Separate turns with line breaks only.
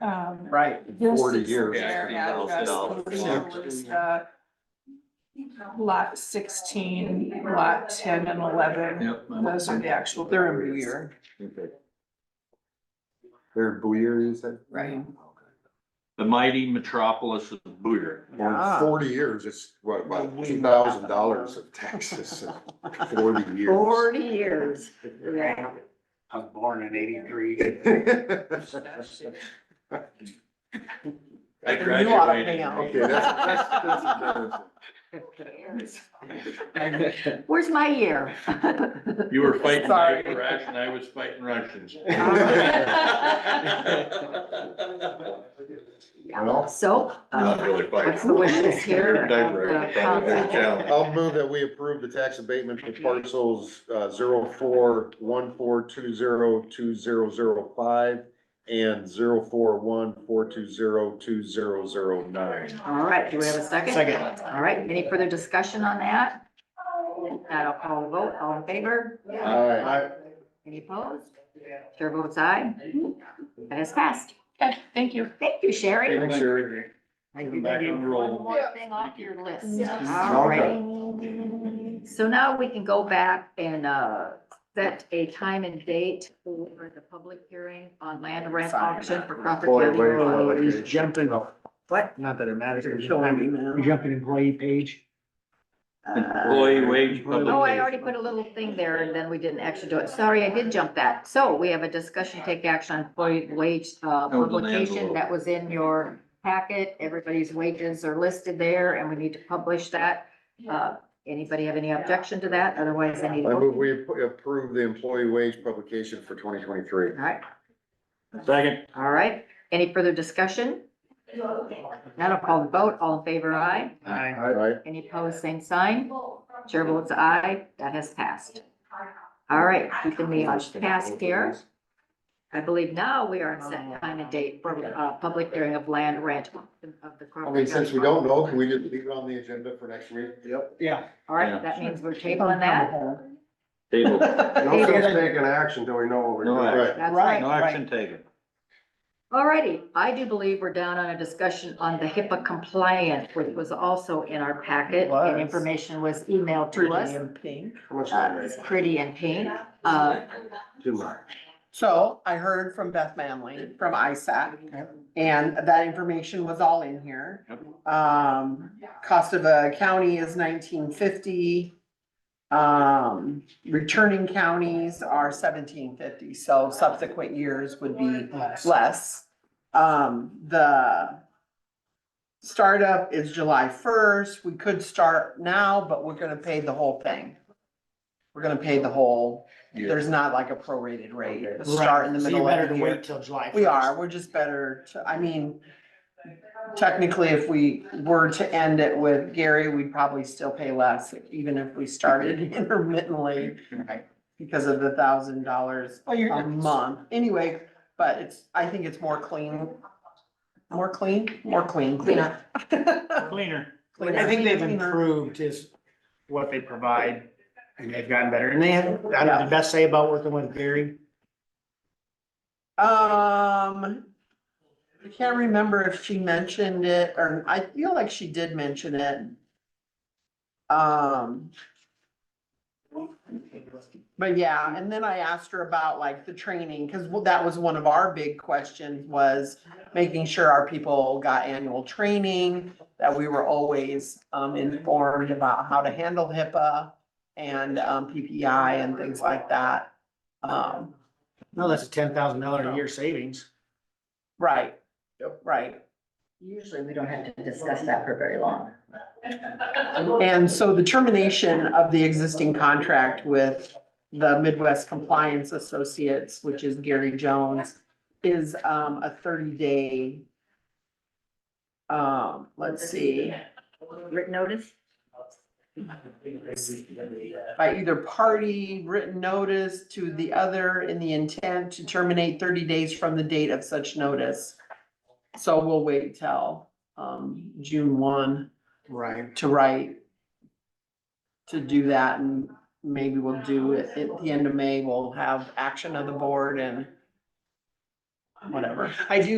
um,
Right.
this
Forty
is
years,
Their
$50,000.
address, original was, uh, lot sixteen, lot ten and eleven.
Yep.
Those are the actual, they're in Boyer,
Okay. They're Booyer, you said?
right?
The mighty metropolis of Booyer.
Well, in
Ah.
forty years, it's what, about
We-
two thousand dollars of taxes in forty years.
Forty years, yeah.
I was born in eighty-three.
I
You ought to pay
graduated.
out.
Okay, that's, that's, that's embarrassing.
Where's my year?
You were fighting
Sorry.
Iraq and I was fighting Russians.
Well,
So,
Not
uh,
really
what's
fighting.
the wishes
You're
here?
diverting from the challenge.
I'll move that we approve the tax abatement for parcels, uh, zero four one four two zero two zero zero five and zero four one four two zero two zero zero nine.
All right, do we have a second?
Second.
All right, any further discussion on that? Now I'll call the vote, all in favor?
Aye.
Any opposed? Chair votes aye. That has passed.
Okay, thank you.
Thank you, Sherry.
Thanks, Sherry.
Come back and
One
roll.
more thing off your list.
Yeah.
All right. So now we can go back and uh, set a time and date for the public hearing on land rent auction for Crawford
Boy,
County
wait.
Oh,
Road.
He's jumping off.
What?
Not that it matters. He's Jumping employee page.
Employee wage
Uh, Oh,
public.
I already put a little thing there and then we didn't actually do it. Sorry, I did jump that. So we have a discussion, take action on employee wage uh,
That was an
publication
envelope.
that was in your packet. Everybody's wages are listed there and we need to publish that. Uh, Anybody have any objection to that? Otherwise, I need. a
I move
motion.
we ap- approve the employee wage publication for twenty twenty-three.
All right,
Second.
all right. Any further discussion?
Uh,
Now I'll call the vote. All in favor, aye.
Aye.
Aye.
Any opposed, same sign. Chair votes aye. That has passed. All right, keeping the uh, task here. I believe now we are set time and date for uh public hearing of land rent of the.
I mean, since we don't know, can we just leave it on the agenda for next week? Yep.
Yeah.
All right, that means we're tabling that.
Table.
No sense taking action until we know what we're
No
doing.
action.
That's
Right.
right.
No action taken.
All righty, I do believe we're down on a discussion on the HIPAA compliant, which was also in our packet and
Was.
information was emailed to us.
How much
Uh,
longer?
It's pretty in pink. Uh,
Too much.
So I heard from Beth Manley from ISAC and that information was all in here. Um, cost of a county is nineteen fifty. Um, returning counties are seventeen fifty, so subsequent years would be less. Um, the startup is July first. We could start now, but we're gonna pay the whole thing. We're gonna pay the whole there's not like a prorated rate, a start in the middle of the year.
till July.
We are, we're just better to, I mean, technically, if we were to end it with Gary, we'd probably still pay less, even if we started intermittently because of the thousand dollars
Oh,
a month. Anyway, but it's, I think it's more clean, more clean, more clean.
Cleaner.
Cleaner.
Cleaner.
I think they've
Cleaner.
improved is what they provide and they've gotten better. And they have, I have the best say about working with Gary.
Um, I can't remember if she mentioned it, or I feel like she did mention it. Um. But yeah, and then I asked her about like the training, cause w- that was one of our big questions was making sure our people got annual training, that we were always um informed about how to handle HIPAA and um PPI and things like that. Um,
No, that's a ten thousand dollar a year savings.
Right. Right.
Usually we don't have to discuss that for very long.
And so the termination of the existing contract with the Midwest Compliance Associates, which is Gary Jones, is um a thirty day. Um, let's see,
Written notice?
by either party, written notice to the other in the intent to terminate thirty days from the date of such notice. So we'll wait till um June one.
Right.
to write. To do that and maybe we'll do it at the end of May, we'll have action of the board and whatever.
I do